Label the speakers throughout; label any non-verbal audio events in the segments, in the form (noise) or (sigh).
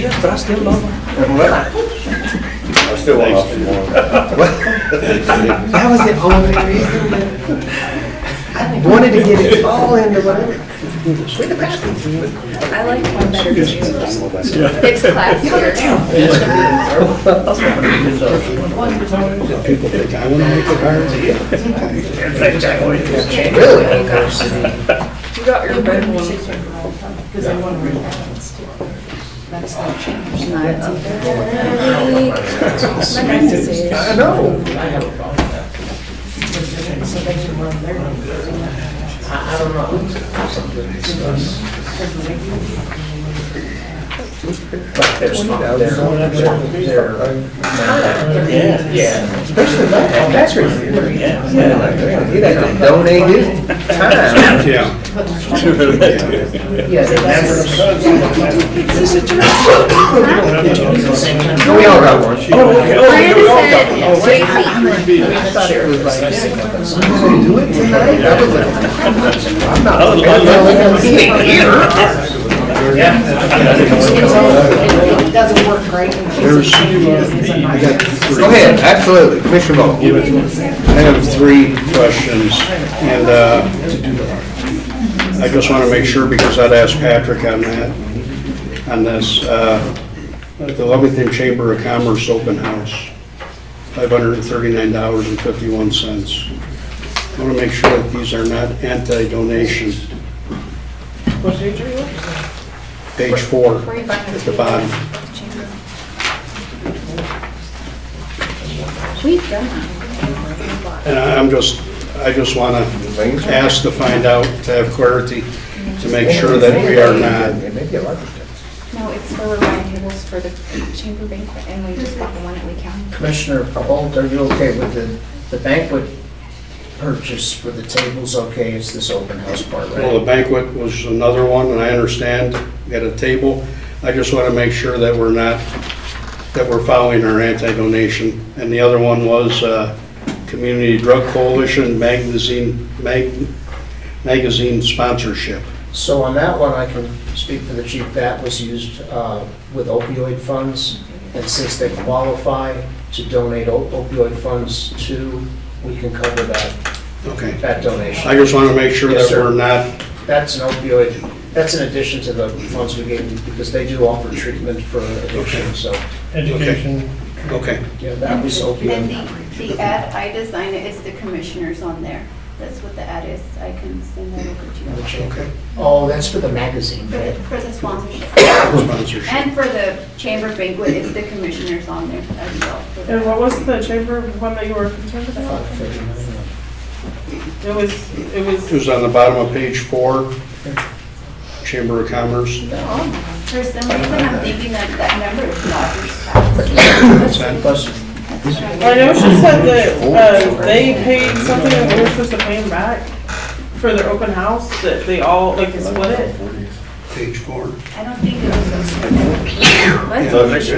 Speaker 1: Yeah, but I still love her.
Speaker 2: I still want option (coughs) one.
Speaker 1: That was the only reason that I wanted to get it all into whatever.
Speaker 3: I like one better than you. It's classier.
Speaker 1: Really?
Speaker 3: You got your red one. Because I want to read
Speaker 1: I
Speaker 3: that
Speaker 1: know. I don't know. There's not
Speaker 4: Yeah, yeah.
Speaker 1: Especially that, that's really weird. Yeah, You'd have to donate his time.
Speaker 2: Yeah.
Speaker 1: We all got one.
Speaker 3: Miranda said, Tracy,
Speaker 1: I thought it was like, "You do it tonight? I was like, I'm not.
Speaker 4: I was like,
Speaker 1: I'm not eating here.
Speaker 5: doesn't work great.
Speaker 2: There's-
Speaker 5: I got
Speaker 1: Go ahead, absolutely, Commissioner Bowe.
Speaker 2: I have three questions, and uh, I just want to make sure, because I'd asked Patrick on that, on this, uh, at the Levington Chamber of Commerce open house, $539.51. I want to make sure that these are not anti-donation. Page four, at the bottom.
Speaker 3: we've done that.
Speaker 2: And I- I'm just, I just want to ask to find out, to have clarity, to make sure that we are not,
Speaker 3: No, it's for round tables for the chamber banquet and we just bought the one at Lee County.
Speaker 6: Commissioner Bolt, are you okay with the, the banquet purchase for the tables okay? It's this open house part,
Speaker 2: well, the
Speaker 6: right?
Speaker 2: banquet was another one, and I understand, we got a table. I just want to make sure that we're not, that we're following our anti-donation. And the other one was uh, Community Drug Coalition magazine, mag- magazine sponsorship.
Speaker 6: So on that one, I can speak for the chief, that was used uh, with opioid funds. And since they qualify to donate o- opioid funds to, we can cover that,
Speaker 2: Okay.
Speaker 6: that
Speaker 2: I
Speaker 6: donation.
Speaker 2: just want to make sure that
Speaker 6: Yes, sir.
Speaker 2: we're not
Speaker 6: That's an opioid, that's in addition to the funds we gave you, because they do offer treatment for addiction, so,
Speaker 2: Education. Okay,
Speaker 6: yeah, that was
Speaker 7: And
Speaker 6: opioid.
Speaker 7: the, the ad, I designed it, it's the commissioners on there. That's what the ad is. I can send that over to you.
Speaker 2: okay,
Speaker 6: Oh, that's for the magazine,
Speaker 7: For the,
Speaker 6: right?
Speaker 7: for the sponsorship.
Speaker 2: sponsorship.
Speaker 7: And for the chamber banquet, it's the commissioners on there as well. for the-
Speaker 8: And what was the chamber one that you were concerned about?
Speaker 6: Five thirty-nine.
Speaker 8: It was,
Speaker 2: It
Speaker 8: it was,
Speaker 2: was on the bottom of page four, Chamber of Commerce.
Speaker 7: Oh, For some reason, I'm thinking that that number is not.
Speaker 6: Plus,
Speaker 8: I know she said that, uh, they paid something that we were supposed to pay them back for their open house, that they all, like, they split it.
Speaker 2: Page four.
Speaker 7: I don't think it was those. Let's-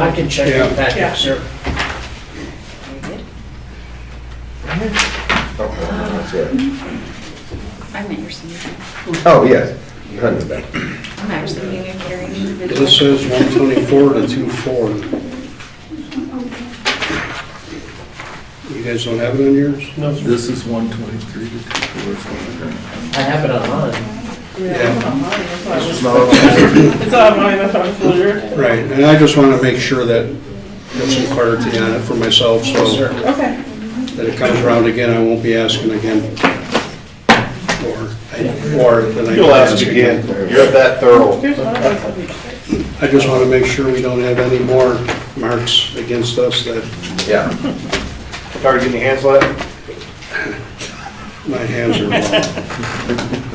Speaker 6: I can check
Speaker 2: Yeah.
Speaker 6: the packet, sir.
Speaker 3: I'm interested.
Speaker 1: Oh, yes, hundred percent.
Speaker 3: I'm actually being carrying individual.
Speaker 2: This says one twenty-four to two four. You guys don't have it on yours? No.
Speaker 9: This is one twenty-three to two four.
Speaker 6: I have it online.
Speaker 2: Yeah,
Speaker 8: It's not mine, that's why I was wondering.
Speaker 2: right, and I just want to make sure that, get some clarity on it for myself, so
Speaker 6: Sir,
Speaker 8: Okay,
Speaker 2: that it comes around again, I won't be asking again. Or, I- or then I.
Speaker 4: You'll ask
Speaker 2: again.
Speaker 9: You're that thorough.
Speaker 8: here's what I was looking for.
Speaker 2: I just want to make sure we don't have any more marks against us that
Speaker 1: Yeah.
Speaker 9: Started getting your hands wet?
Speaker 2: my hands are wrong.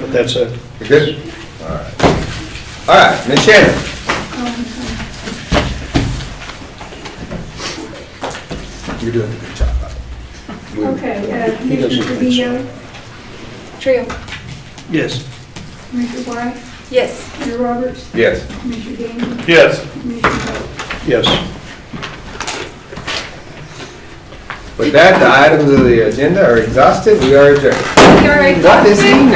Speaker 2: But that's it.
Speaker 1: You good? All right. All right, Ms. Shannon. You're doing a good job. buddy.
Speaker 10: Okay, uh, Commissioner Trujillo,
Speaker 3: Trio.
Speaker 2: Yes.
Speaker 10: Commissioner White,
Speaker 3: Yes.
Speaker 10: Commissioner Roberts,
Speaker 1: Yes.
Speaker 10: Commissioner Gandy,
Speaker 9: Yes.
Speaker 10: Commissioner Bowe.
Speaker 2: Yes.
Speaker 1: With that, the items of the agenda are exhausted. We are adjourned.
Speaker 7: You're
Speaker 1: What is he
Speaker 7: exhausted?
Speaker 1: now?